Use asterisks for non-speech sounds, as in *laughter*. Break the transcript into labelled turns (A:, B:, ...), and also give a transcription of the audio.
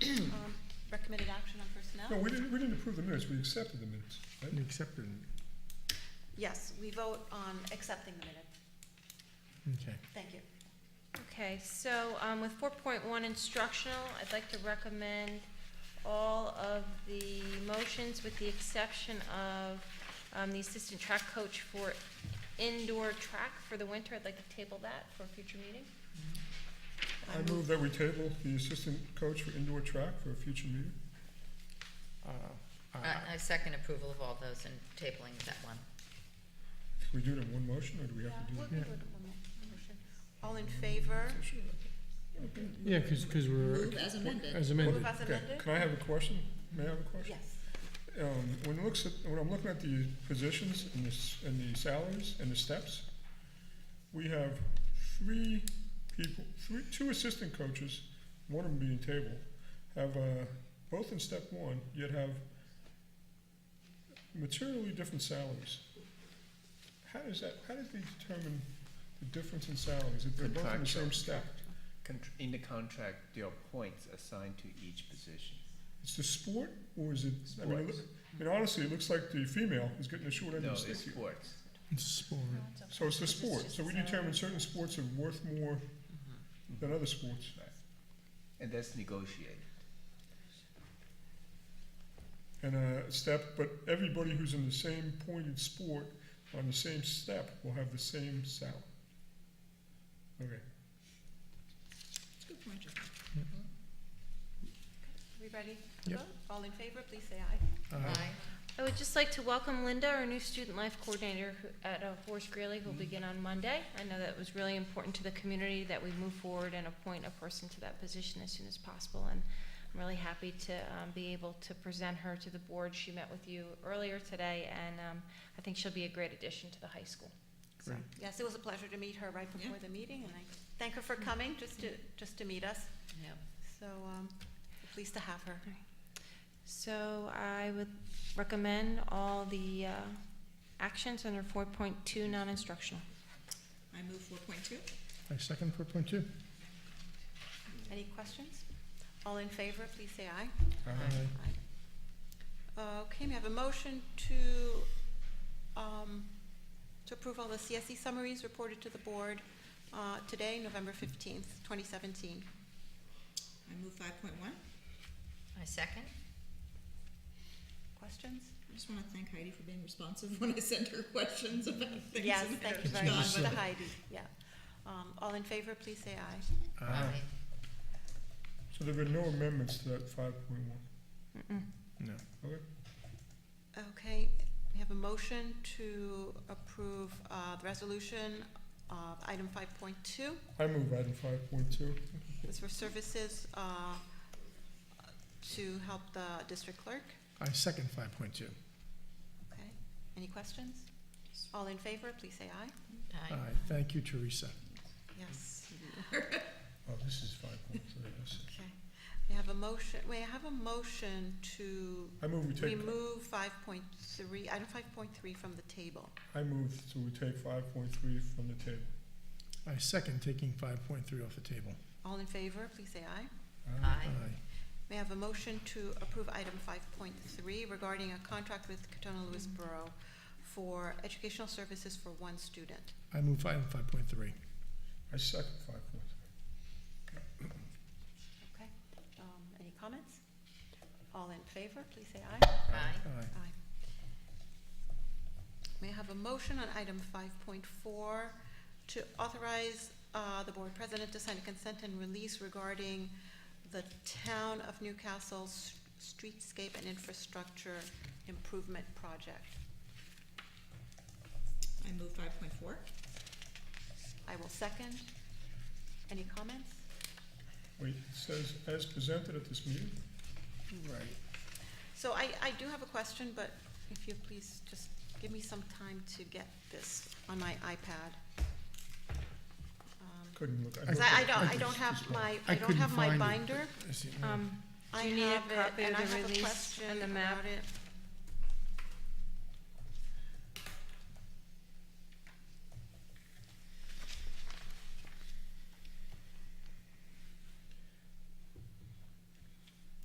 A: Um,
B: No,
A: No?
B: we didn't, we didn't approve the minutes, we accepted the minutes, right?
C: You accepted, it.
A: Yes, we vote on accepting the minute.
C: okay.
A: Thank you.
D: Okay, so um, with 4.1 instructional, I'd like to recommend all of the motions with the exception of um, the assistant track coach for indoor track for the winter. I'd like to table that for a future meeting.
B: I move that we table the assistant coach for indoor track for a future meeting.
C: Uh, I-
E: I, I second approval of all those and tabling that one.
B: Can we do it in one motion, or do we have to do
A: We'll
B: it?
A: do it in one more motion. All in favor?
C: Yeah, because, because we're.
E: Move as amended.
C: As
A: Move
C: amended.
A: as
B: Okay,
A: amended?
B: Can I have a question? May I have a question?
A: Yes.
B: Um, when it looks at, when I'm looking at the positions and the, s- and the salaries and the steps, we have three people, three, two assistant coaches, one of them being table, have, uh, both in step one, yet have materially different salaries. How does that, how did they determine the difference in salaries if they're both in the
F: Contractual.
B: same step?
F: Contr- In the contract, there are points assigned to each position.
B: It's the sport or is it, I mean, it loo-
F: Sports.
B: I mean, honestly, it looks like the female is getting the short end
F: No,
B: of the stick
F: it's
B: here.
F: sports.
C: It's sport.
B: So it's the sport, so we determine certain sports are worth more than other sports.
F: And that's negotiated.
B: And a step, but everybody who's in the same pointed sport on the same step will have the same salary. Okay,
A: Good point, John.
C: Yeah.
A: We ready? to
C: Yeah.
A: vote? All in favor, please say aye.
C: Uh,
D: I would just like to welcome Linda, our new student life coordinator who- at uh, Horace Greeley,
G: Mm-hmm.
D: who'll begin on Monday. I know that was really important to the community that we move forward and appoint a person to that position as soon as possible. And I'm really happy to um, be able to present her to the board. She met with you earlier today, and um, I think she'll be a great addition to the high school. So,
C: Great.
A: Yes, it was a pleasure to meet her right before the meeting, and I thank her for coming, just to, just to meet us.
E: Yep.
A: So, um, pleased to have her.
D: So I would recommend all the uh, actions under 4.2 non-instructional.
G: I move four point two.
C: I second four point two.
A: Any questions? All in favor, please say aye.
B: Uh-huh.
C: Aye.
A: Okay, we have a motion to, um, to approve all the CSE summaries reported to the board, uh, today, November fifteenth, twenty seventeen.
G: I move five point one.
E: I second.
A: Questions?
G: I just wanna thank Heidi for being responsive *laughs* when I send her questions about things.
A: Yes,
G: and
A: thank you
G: everything.
A: very much
C: John.
A: to Heidi, yeah. Um, all in favor, please say aye.
C: Aye.
B: so there were no amendments to that five point one,
D: Mm-mm.
C: No.
B: okay?
A: Okay, we have a motion to approve, uh, the resolution of item five point two.
B: I move item five point two.
A: It's for services, uh, to help the district clerk.
C: I second five point two.
A: Okay, any questions? All in favor, please say aye.
E: Aye.
C: Aye, thank you, Teresa.
A: Yes.
B: Oh, this is five point three, I see.
A: Okay, we have a motion, we have a motion to
B: I move we take,
A: remove five point three, item five point three from the table.
B: I move to we take five point three from the table.
C: I second taking five point three off the table.
A: All in favor, please say aye.
B: Aye.
E: Aye.
A: We have a motion to approve item five point three regarding a contract with Catona Lewis Borough for educational services for one student.
C: I move item five point three.
B: I second five point three.
A: Okay, um, any comments? All in favor, please say aye.
E: Aye.
C: Aye.
A: Aye. May I have a motion on item five point four to authorize uh, the board president to sign a consent and release regarding the town of Newcastle's streetscape and infrastructure improvement project?
G: I move five point four.
A: I will second. Any comments?
B: Wait, it says as presented at this meeting?
C: Right.
A: So I, I do have a question, but if you please just give me some time to get this on my iPad. Um,
B: Couldn't look.
A: Cause
B: looked
A: I, I
B: at-
A: don't, I
B: just-
A: don't have
B: just-
A: my,
C: I
A: I don't
C: couldn't
A: have my
C: find it.
A: binder.
C: I see, no.
D: Um,
A: I
D: Do you need a
A: have it,
D: copy of
A: and I
D: the
A: have a
D: release
A: question
D: and the map?
A: about it.